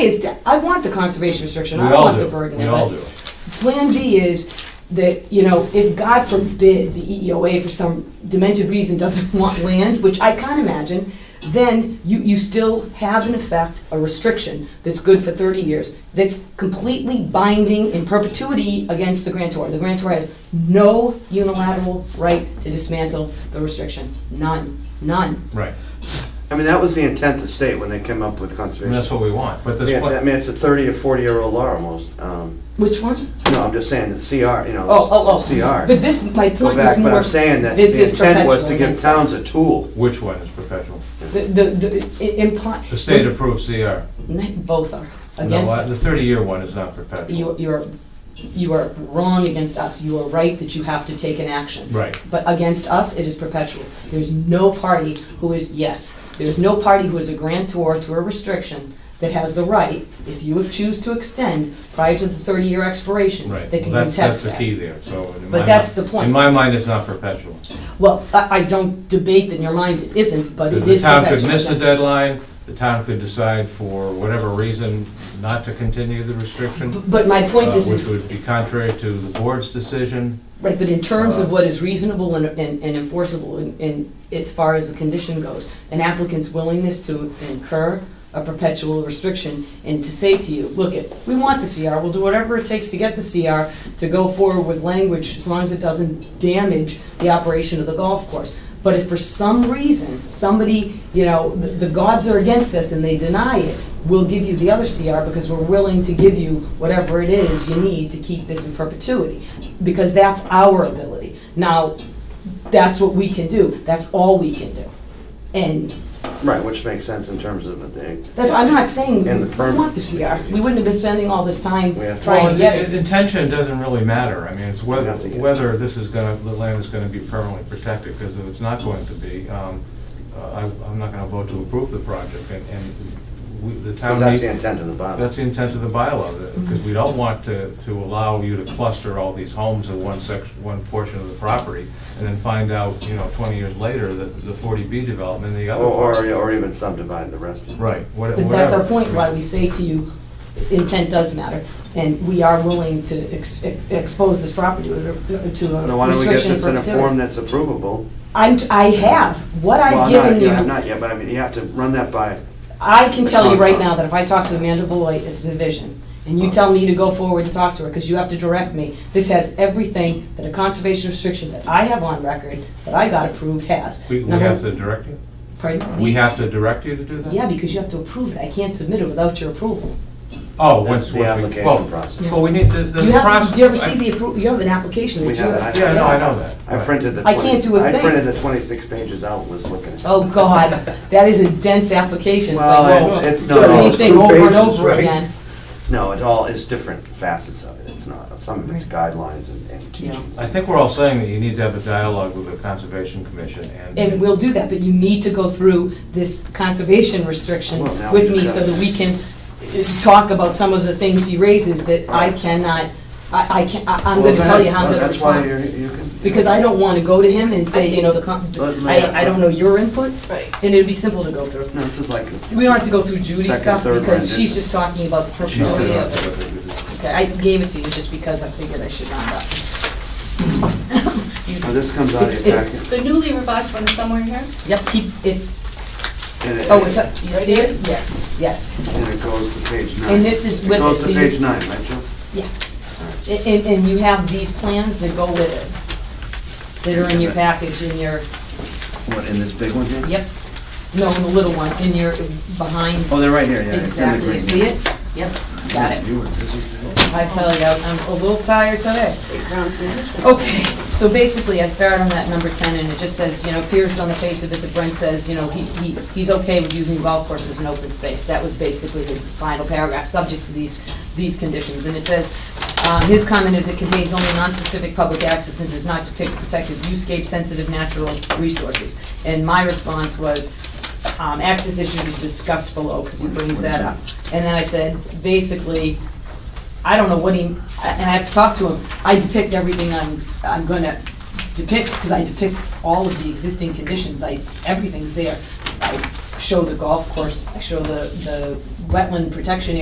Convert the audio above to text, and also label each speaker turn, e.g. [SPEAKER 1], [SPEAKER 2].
[SPEAKER 1] is, to- I want the conservation restriction,
[SPEAKER 2] We
[SPEAKER 1] I
[SPEAKER 2] all
[SPEAKER 1] want the
[SPEAKER 2] do,
[SPEAKER 1] burden
[SPEAKER 2] we all
[SPEAKER 1] limit.
[SPEAKER 2] do.
[SPEAKER 1] Plan B is that, you know, if God forbid the E EEOA for some demented reason doesn't want land, which I can't imagine, then you, you still have in effect a restriction that's good for thirty years, that's completely binding in perpetuity against the grantor. The grantor has no unilateral right to dismantle the restriction, none, none.
[SPEAKER 2] Right,
[SPEAKER 3] I mean, that was the intent of the state when they came up with
[SPEAKER 2] and that's
[SPEAKER 3] conservation.
[SPEAKER 2] what we want, but this,
[SPEAKER 3] Yeah, I
[SPEAKER 2] pla-
[SPEAKER 3] mean, it's a thirty or forty-year-old law almost. Um,
[SPEAKER 1] Which one?
[SPEAKER 3] No, I'm just saying the CR, you know,
[SPEAKER 1] Oh, oh, oh.
[SPEAKER 3] CR.
[SPEAKER 1] But this, my
[SPEAKER 3] Go
[SPEAKER 1] point was
[SPEAKER 3] back,
[SPEAKER 1] more.
[SPEAKER 3] but I'm saying that the
[SPEAKER 1] this is
[SPEAKER 3] intent was to
[SPEAKER 1] perpetual
[SPEAKER 3] give
[SPEAKER 1] in
[SPEAKER 3] towns a
[SPEAKER 1] excess.
[SPEAKER 3] tool.
[SPEAKER 2] which one is perpetual?
[SPEAKER 1] The, the, the, it imply.
[SPEAKER 2] The state approved CR.
[SPEAKER 1] Both are
[SPEAKER 2] No, uh,
[SPEAKER 1] against,
[SPEAKER 2] the thirty-year one is not perpetual.
[SPEAKER 1] you, you're, you are wrong against us. You are right that you have to take an action.
[SPEAKER 2] Right,
[SPEAKER 1] But against us, it is perpetual. There's no party who is, yes, there's no party who is a grantor to a restriction that has the right, if you choose to extend prior to the thirty-year expiration,
[SPEAKER 2] right.
[SPEAKER 1] they can
[SPEAKER 2] That's-
[SPEAKER 1] contest
[SPEAKER 2] That's
[SPEAKER 1] that.
[SPEAKER 2] the key there, so. in
[SPEAKER 1] But
[SPEAKER 2] my
[SPEAKER 1] that's
[SPEAKER 2] mi-
[SPEAKER 1] the point.
[SPEAKER 2] In my mind, it's not perpetual.
[SPEAKER 1] Well, I, I don't debate that in your mind it isn't, but it
[SPEAKER 2] The
[SPEAKER 1] is
[SPEAKER 2] town
[SPEAKER 1] perpetual.
[SPEAKER 2] could miss the
[SPEAKER 1] against us.
[SPEAKER 2] deadline, the town could decide for whatever reason not to continue the restriction,
[SPEAKER 1] B-
[SPEAKER 2] uh,
[SPEAKER 1] But my point is,
[SPEAKER 2] which
[SPEAKER 1] is,
[SPEAKER 2] would be contrary to the board's decision.
[SPEAKER 1] right, but in terms of
[SPEAKER 2] Uh,
[SPEAKER 1] what is reasonable and, and and enforceable, in- in, as far as the condition goes, an applicant's willingness to incur a perpetual restriction and to say to you, look, it, we want the CR, we'll do whatever it takes to get the CR, to go forward with language, as long as it doesn't damage the operation of the golf course. But if for some reason, somebody, you know, the, the gods are against us and they deny it, we'll give you the other CR because we're willing to give you whatever it is you need to keep this in perpetuity. Because that's our ability. Now, that's what we can do. That's all we can do. And
[SPEAKER 3] Right, which makes sense in terms of the.
[SPEAKER 1] that's, I'm not saying
[SPEAKER 3] And the
[SPEAKER 1] we
[SPEAKER 3] permit.
[SPEAKER 1] want the CR. We wouldn't have been spending all this time
[SPEAKER 3] We have-
[SPEAKER 1] trying
[SPEAKER 2] Well,
[SPEAKER 1] to get it.
[SPEAKER 2] the- the Intention doesn't really matter, I mean, it's whether,
[SPEAKER 3] Nothing.
[SPEAKER 2] whether this is gonna, the land is gonna be permanently protected, because if it's not going to be, um, uh, I, I'm not gonna vote to approve the project, and, and we, the town.
[SPEAKER 3] Because that's
[SPEAKER 2] needs-
[SPEAKER 3] the intent of the bylaw.
[SPEAKER 2] That's the intent of the bylaw, because we don't want to, to allow you to cluster all these homes in one section, one portion of the property, and then find out, you know, twenty years later that there's a forty B development in the
[SPEAKER 3] Or,
[SPEAKER 2] other part.
[SPEAKER 3] Oh, or or even subdivide the rest of it.
[SPEAKER 2] Right, wha- whatever.
[SPEAKER 1] But that's our point, why we say to you, intent does matter, and we are willing to ex- expose this property to a
[SPEAKER 3] Now, why don't we get
[SPEAKER 1] restriction
[SPEAKER 3] this
[SPEAKER 1] for
[SPEAKER 3] in a form
[SPEAKER 1] perpetuity.
[SPEAKER 3] that's approvable?
[SPEAKER 1] I'm, I have, what
[SPEAKER 3] Well,
[SPEAKER 1] I've
[SPEAKER 3] not-
[SPEAKER 1] given
[SPEAKER 3] yeah,
[SPEAKER 1] you,
[SPEAKER 3] Not yet, but I mean, you have to run that by,
[SPEAKER 1] I can tell you right
[SPEAKER 2] Uh-huh.
[SPEAKER 1] now that if I talk to Amanda Beloit, it's Envision, and you tell me to go forward and talk to her, because you have to direct me, this has everything that a conservation restriction that I have on record, that I got approved has.
[SPEAKER 2] We, we
[SPEAKER 1] Number-
[SPEAKER 2] have to direct you?
[SPEAKER 1] Pardon?
[SPEAKER 2] We have to direct you to do that?
[SPEAKER 1] Yeah, because you have to approve it, I can't submit it without your approval.
[SPEAKER 2] Oh,
[SPEAKER 3] the
[SPEAKER 2] once, once we.
[SPEAKER 3] the application
[SPEAKER 2] well,
[SPEAKER 3] process.
[SPEAKER 2] Well, we need, the, the
[SPEAKER 1] You have,
[SPEAKER 2] process-
[SPEAKER 1] to- do you ever see
[SPEAKER 2] I-
[SPEAKER 1] the appro, you have an application
[SPEAKER 3] We
[SPEAKER 1] that you
[SPEAKER 3] have it.
[SPEAKER 1] have.
[SPEAKER 3] I-
[SPEAKER 2] Yeah, no, I know that.
[SPEAKER 3] I
[SPEAKER 2] Right.
[SPEAKER 3] printed the
[SPEAKER 1] I
[SPEAKER 3] 20
[SPEAKER 1] can't do a
[SPEAKER 3] I
[SPEAKER 1] thing.
[SPEAKER 3] printed the twenty-six pages out and was looking at it.
[SPEAKER 1] Oh, God, that is a dense application, it's like,
[SPEAKER 3] Well,
[SPEAKER 1] whoa,
[SPEAKER 3] it's, it's
[SPEAKER 1] the
[SPEAKER 3] not
[SPEAKER 1] same
[SPEAKER 3] all,
[SPEAKER 1] thing over and over again.
[SPEAKER 3] no, it all is different facets of it. It's not, some of it's guidelines and, and teaching.
[SPEAKER 2] I think we're all saying that you need to have a dialogue with the Conservation Commission and.
[SPEAKER 1] And we'll do that, but you need to go through this conservation restriction
[SPEAKER 3] Well, now
[SPEAKER 1] with
[SPEAKER 3] we've
[SPEAKER 1] me
[SPEAKER 3] got-
[SPEAKER 1] so that we can uh, talk about some of the things he raises that I cannot, I, I can, I- I'm
[SPEAKER 3] Well,
[SPEAKER 1] gonna
[SPEAKER 3] go
[SPEAKER 1] tell
[SPEAKER 3] ahead.
[SPEAKER 1] you how I'm
[SPEAKER 3] Well,
[SPEAKER 1] gonna
[SPEAKER 3] That's why
[SPEAKER 1] respond.
[SPEAKER 3] you're, you can.
[SPEAKER 1] Because I don't wanna go to him and say, you know, the, con-
[SPEAKER 3] Let me-
[SPEAKER 1] I, I don't know your input,
[SPEAKER 4] Right.
[SPEAKER 1] and it'd be simple to go through.
[SPEAKER 3] No, this is like.
[SPEAKER 1] We don't have to go through Judy's
[SPEAKER 3] Second,
[SPEAKER 1] stuff
[SPEAKER 3] third
[SPEAKER 1] because she's
[SPEAKER 3] rendition.
[SPEAKER 1] just talking about the
[SPEAKER 2] She's gonna
[SPEAKER 1] perpetuity
[SPEAKER 2] have
[SPEAKER 1] of
[SPEAKER 2] to
[SPEAKER 1] it.
[SPEAKER 2] look at it.
[SPEAKER 1] Okay, I gave it to you just because I figured I should round up. Excuse
[SPEAKER 3] Now,
[SPEAKER 1] me.
[SPEAKER 3] this comes out of
[SPEAKER 1] It's-
[SPEAKER 3] your
[SPEAKER 1] it's-
[SPEAKER 3] packet.
[SPEAKER 4] The newly revised one is somewhere here?
[SPEAKER 1] Yep, keep, it's,
[SPEAKER 3] and it-
[SPEAKER 1] oh, it's up, do you
[SPEAKER 4] Right
[SPEAKER 1] see
[SPEAKER 4] here?
[SPEAKER 1] it? Yes, yes.
[SPEAKER 3] And it goes to page nine.
[SPEAKER 1] And this is with it,
[SPEAKER 3] It goes
[SPEAKER 1] so
[SPEAKER 3] to
[SPEAKER 1] you-
[SPEAKER 3] page nine, right, Joe?
[SPEAKER 1] Yeah. A- And, and you have these plans that go with it, that are in your package, in your,
[SPEAKER 3] What, in this big one here?
[SPEAKER 1] yep, no, in the little one, in your, behind,
[SPEAKER 3] Oh, they're right here, yeah. it's in the
[SPEAKER 1] exactly, you
[SPEAKER 3] green.
[SPEAKER 1] see it? Yep, got it.
[SPEAKER 3] You were busy today.
[SPEAKER 1] I tell you, I'm a little tired today.
[SPEAKER 4] Grounds management.
[SPEAKER 1] Okay, so basically, I started on that number 10, and it just says, you know, appears on the face of it that Brent says, you know, he, he he's okay with using golf course as an open space. That was basically his final paragraph, subject to these, these conditions. And it says, um, his comment is it contains only non-specific public access and does not depict protected viewscape-sensitive natural resources. And my response was, um, access issues are discussed below, because he brings that up. And then I said, basically, I don't know what he, and I have to talk to him, I depict everything I'm, I'm gonna depict, because I depict all of the existing conditions, I, everything's there. I show the golf course, I show the, the wetland protection